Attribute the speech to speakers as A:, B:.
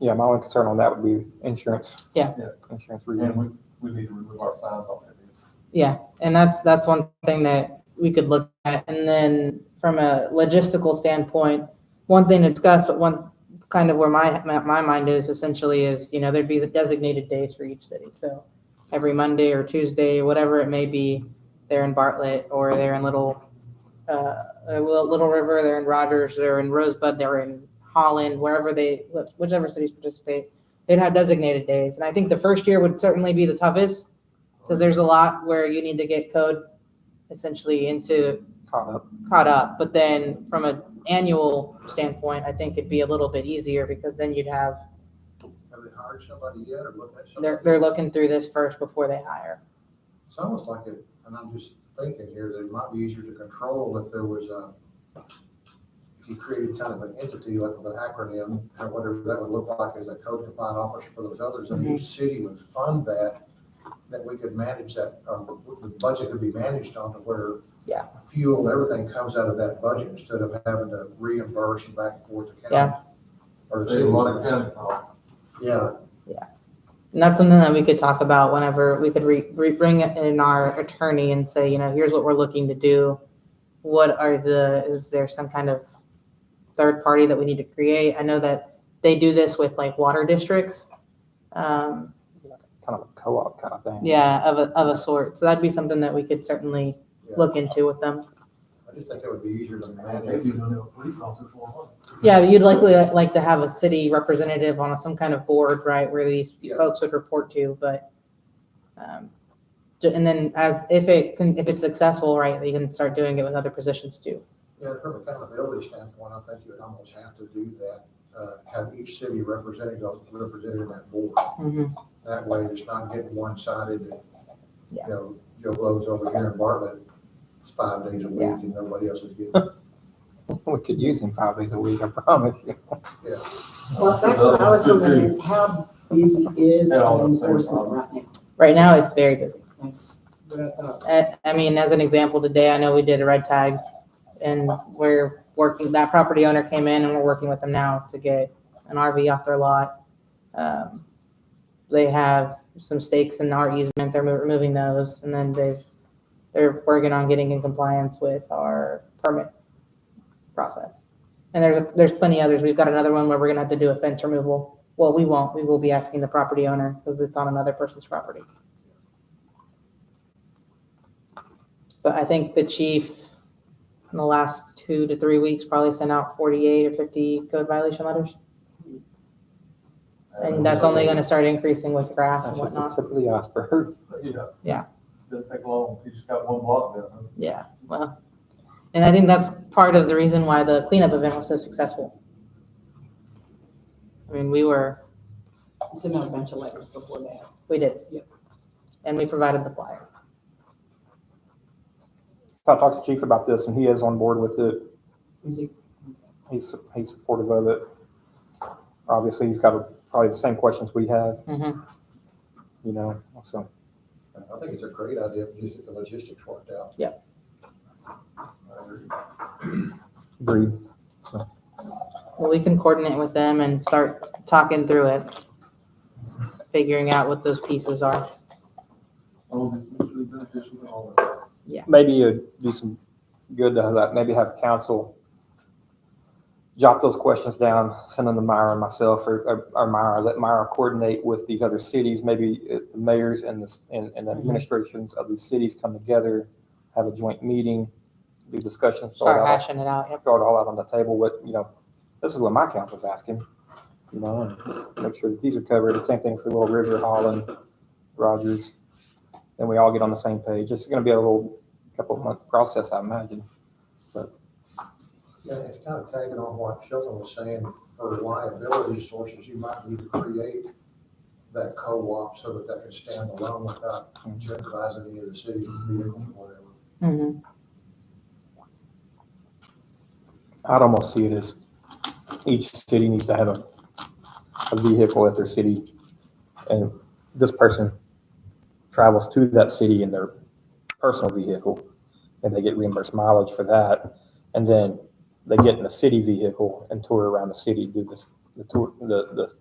A: Yeah, my only concern on that would be insurance.
B: Yeah.
C: Yeah.
A: Insurance
C: And
A: review.
C: we, we need to remove our signs on that.
B: And that's, that's one thing that we could look at. And then from a logistical standpoint, one thing to discuss, but one kind of where my, my- my mind is essentially is, you know, there'd be designated days for each city. So every Monday or Tuesday, whatever it may be, they're in Bartlett or they're in Little, uh, or Little Little River, they're in Rogers, they're in Rosebud, they're in Holland, wherever they, whichever cities participate, they'd have designated days. And I think the first year would certainly be the toughest because there's a lot where you need to get code essentially into
A: Caught up.
B: caught up. But then from an annual standpoint, I think it'd be a little bit easier because then you'd have
D: Have they hired somebody yet or looked at somebody?
B: they're they're looking through this first before they hire.
D: It's almost like it, and I'm just thinking here, that it might be easier to control if there was a, if you created kind of an entity, like with an acronym, or whatever that would look like as a code compliant officer for those others, and
B: Mhm.
D: each city would fund that, that we could manage that, um, the budget could be managed on to where
B: Yeah.
D: fuel, and everything comes out of that budget instead of having to reimburse and back and forth to county.
B: Yeah.
D: Or the
C: Save a lot of
D: city.
C: county costs.
D: Yeah,
B: And that's something that we could talk about whenever we could re, re- bring in our attorney and say, you know, here's what we're looking to do. What are the, is there some kind of third party that we need to create? I know that they do this with like water districts. Um,
A: Kind of a co-op kind of thing.
B: Yeah, of a, of a sort. So that'd be something that we could certainly
D: yeah.
B: look into with them.
D: I just think it would be easier to manage.
C: Maybe you don't know a police officer for a month.
B: Yeah, but you'd likely uh, like to have a city representative on some kind of board, right, where these
D: Yeah.
B: folks would report to, but. um, ju- And then as, if it can, if it's successful, right, you can start doing it with other positions too.
D: Yeah, from accountability standpoint, I think you would almost have to do that, uh, have each city representative, represented in that board.
B: Mm-hmm.
D: That way, it's not getting one-sided, and, you
B: Yeah.
D: know, Joe Blow's over here in Bartlett five days a week,
B: Yeah.
D: and nobody else is getting,
A: We could use him five days a week, I promise you.
E: Well, that's what I was wondering is how busy is
C: Yeah, all
E: code
C: the same
E: enforcement
C: problem.
E: right now?
B: Right now, it's very busy.
E: That's what I thought.
B: I, I mean, as an example, today, I know we did a red tag and we're working, that property owner came in and we're working with them now to get an RV off their lot. Um, They have some stakes in our easement, they're mo- removing those, and then they've, they're working on getting in compliance with our permit process. And there's, there's plenty others, we've got another one where we're gonna have to do a fence removal. Well, we won't, we will be asking the property owner, because it's on another person's property. But I think the chief in the last two to three weeks probably sent out forty-eight or fifty code violation letters. And that's only gonna start increasing with grass
A: Oh, That's
B: and
A: just the
B: whatnot.
A: tip of the iceberg.
C: Yeah.
B: Yeah.
C: Doesn't take long. You just got one block down.
B: Yeah, well, and I think that's part of the reason why the cleanup event was so successful. I mean, we were,
E: I sent out a bunch of letters before that.
B: we did.
E: Yep.
B: And we provided the flyer.
A: So I talked to Chief about this and he is on board with it.
E: Is it
A: He's, he's supportive of it. Obviously, he's got probably the same questions we have,
B: Mhm.
A: you know, so.
D: I think it's a great idea if you get the logistics worked out.
B: Yeah.
D: I agree.
A: Agreed.
B: Well, we can coordinate with them and start talking through it, figuring out what those pieces are.
C: All this mutually beneficial to all of us.
A: Maybe it'd do some good to have that, maybe have council jot those questions down, send them to Myra and myself, or, or- or Myra, let Myra coordinate with these other cities. Maybe uh, the mayors and the, s- and, and the
B: Mhm.
A: administrations of these cities come together, have a joint meeting, do discussions. sort
B: Start
A: out
B: hashing it out, yep.
A: throw it all out on the table, what, you know, this is what my council's asking, you know, and just make sure that these are covered. The same thing for Little River, Holland, Rogers. Then we all get on the same page. It's gonna be a little couple of month process, I imagine.
D: Yeah, it's kind of tagging on what Sheldon was saying, for liability sources, you might need to create that co-op so that that can stand alone without jeopardizing any of the city's vehicles or whatever.
B: Mhm.
A: I'd almost see it as each city needs to have a, a vehicle at their city. And this person travels to that city in their personal vehicle and they get reimbursed mileage for that. And then they get in the city vehicle and tour around the city, do this, the tour, the, the